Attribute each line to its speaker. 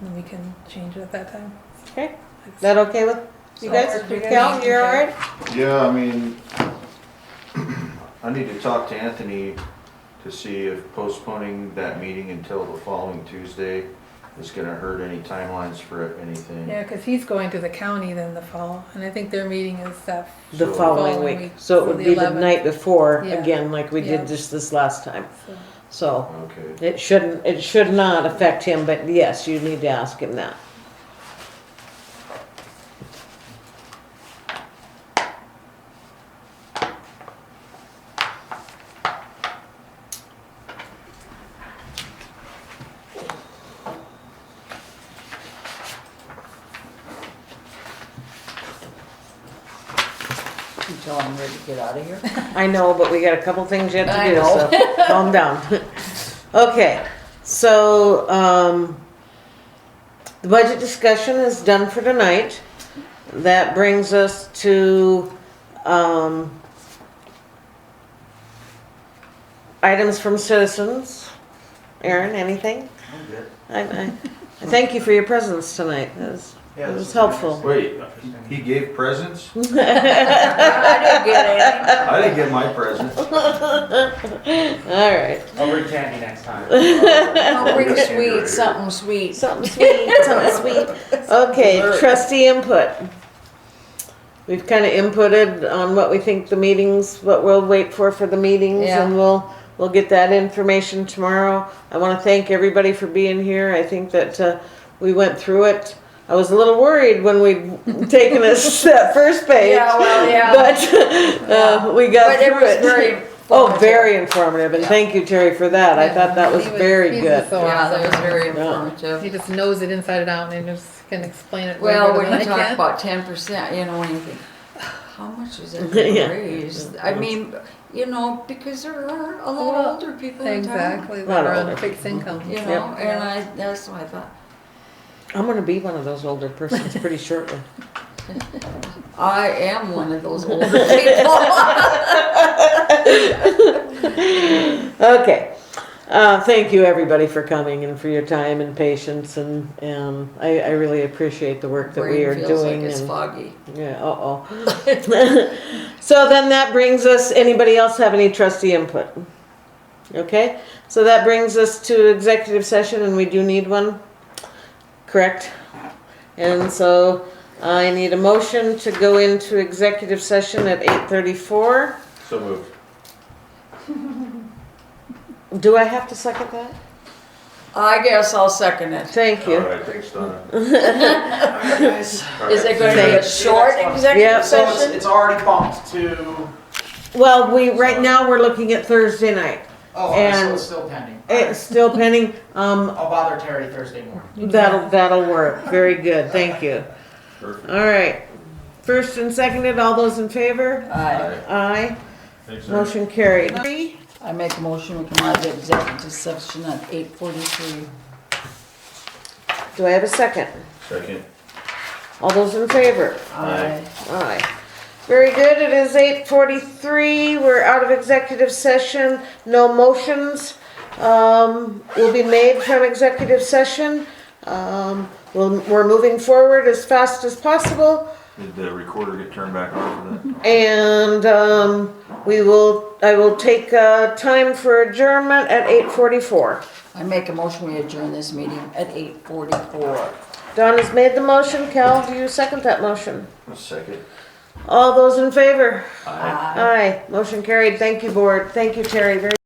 Speaker 1: and we can change it at that time.
Speaker 2: Okay, is that okay with you
Speaker 1: So
Speaker 2: guys?
Speaker 1: we're good.
Speaker 2: Cal, you're all right?
Speaker 3: Yeah, I mean, I need to talk to Anthony to see if postponing that meeting until the following Tuesday is gonna hurt any timelines for anything.
Speaker 1: Yeah, because he's going to the county then the fall, and I think their meeting is that,
Speaker 2: The
Speaker 3: So-
Speaker 2: following
Speaker 1: Following
Speaker 2: week,
Speaker 1: week,
Speaker 2: so
Speaker 1: so
Speaker 2: it would
Speaker 1: the
Speaker 2: be the
Speaker 1: 11th.
Speaker 2: night before,
Speaker 1: Yeah.
Speaker 2: again, like we
Speaker 1: Yeah.
Speaker 2: did just this last time.
Speaker 1: so,
Speaker 2: So
Speaker 3: Okay,
Speaker 2: it shouldn't, it should not affect him, but yes, you need to ask him that.
Speaker 4: Until I'm ready to get out of here.
Speaker 2: I know, but we got a couple things yet
Speaker 4: I
Speaker 2: to do,
Speaker 4: know.
Speaker 2: so calm down. Okay, so, um, the budget discussion is done for tonight. That brings us to, um, items from citizens. Aaron, anything?
Speaker 5: I'm good.
Speaker 2: I, I, I thank you for your presence tonight. That was,
Speaker 5: Yeah,
Speaker 2: that
Speaker 5: this
Speaker 2: was
Speaker 5: is
Speaker 2: helpful.
Speaker 3: wait, he gave presents?
Speaker 4: I didn't get it.
Speaker 3: I didn't get my present.
Speaker 2: All right.
Speaker 5: I'll bring candy next time.
Speaker 4: Don't bring
Speaker 3: Yes, you're
Speaker 4: sweet,
Speaker 3: right.
Speaker 4: something sweet.
Speaker 2: Something sweet, something sweet. Okay, trustee input. We've kind of inputted on what we think the meetings, what we'll wait for for the meetings,
Speaker 4: Yeah.
Speaker 2: and we'll, we'll get that information tomorrow. I want to thank everybody for being here. I think that uh, we went through it. I was a little worried when we'd taken us that first page.
Speaker 4: Yeah, well, Oh, yeah.
Speaker 2: But uh, we got
Speaker 4: But it
Speaker 2: through
Speaker 4: was
Speaker 2: it.
Speaker 4: very.
Speaker 2: Oh, very informative, and
Speaker 4: Yeah.
Speaker 2: thank you, Terry, for that. I thought that was
Speaker 1: He was-
Speaker 2: very
Speaker 1: he's
Speaker 2: good.
Speaker 1: so
Speaker 4: Yeah, that was
Speaker 1: awesome.
Speaker 4: very
Speaker 2: Yeah.
Speaker 1: He
Speaker 4: informative.
Speaker 1: just knows it inside and out and just can explain it. way
Speaker 4: Well,
Speaker 1: better
Speaker 4: when
Speaker 1: than I
Speaker 4: you talk
Speaker 1: can.
Speaker 4: about ten percent, you know, and you think, how much is it
Speaker 2: Yeah.
Speaker 4: gonna raise? I mean, you know, because there are a lot
Speaker 1: Well,
Speaker 4: of older people in town.
Speaker 1: Exactly,
Speaker 2: Lot
Speaker 1: that
Speaker 2: of
Speaker 1: are on
Speaker 2: older
Speaker 1: fixed income.
Speaker 4: You
Speaker 2: Yep.
Speaker 4: know, and I, that's what I thought.
Speaker 2: I'm gonna be one of those older persons pretty shortly.
Speaker 4: I am one of those older people.
Speaker 2: Okay. Uh, thank you, everybody, for coming and for your time and patience, and, and I, I really appreciate the work that we
Speaker 4: Brain
Speaker 2: are
Speaker 4: feels like
Speaker 2: doing.
Speaker 4: it's
Speaker 2: and-
Speaker 4: foggy.
Speaker 2: Yeah, uh-oh. So then that brings us, anybody else have any trustee input? Okay, so that brings us to executive session, and we do need one, correct? And so I need a motion to go into executive session at eight thirty-four.
Speaker 3: So moved.
Speaker 2: Do I have to second that?
Speaker 4: I guess I'll second it.
Speaker 2: Thank
Speaker 3: All
Speaker 2: you.
Speaker 3: right, thanks, Donna.
Speaker 4: Is it gonna be a short
Speaker 2: Yeah.
Speaker 4: executive
Speaker 5: So it's,
Speaker 4: session?
Speaker 5: it's already bumped to,
Speaker 2: Well, we, right now, we're looking at Thursday night.
Speaker 5: oh, okay, so
Speaker 2: And-
Speaker 5: it's still pending.
Speaker 2: It's still pending, um,
Speaker 5: I'll bother Terry Thursday morning.
Speaker 2: that'll, that'll work. Very good, thank you.
Speaker 3: Perfect.
Speaker 2: All right. First and seconded, all those in favor?
Speaker 4: Aye.
Speaker 2: Aye.
Speaker 3: Thanks, Aaron.
Speaker 2: Motion carried. Three.
Speaker 4: I make a motion, we come out of the executive session at eight forty-three.
Speaker 2: Do I have a second?
Speaker 3: Second.
Speaker 2: All those in favor?
Speaker 3: Aye.
Speaker 2: Aye. Very good, it is eight forty-three, we're out of executive session, no motions, um, will be made from executive session. Um, we'll, we're moving forward as fast as possible,
Speaker 3: Did the recorder get turned back on for that?
Speaker 2: and, um, we will, I will take, uh, time for adjournment at eight forty-four.
Speaker 4: I make a motion, we adjourn this meeting at eight forty-four.
Speaker 2: Don has made the motion, Cal, do you second that motion?
Speaker 3: A second.
Speaker 2: All those in favor?
Speaker 3: Aye.
Speaker 2: Aye, motion carried, thank you, board, thank you, Terry, very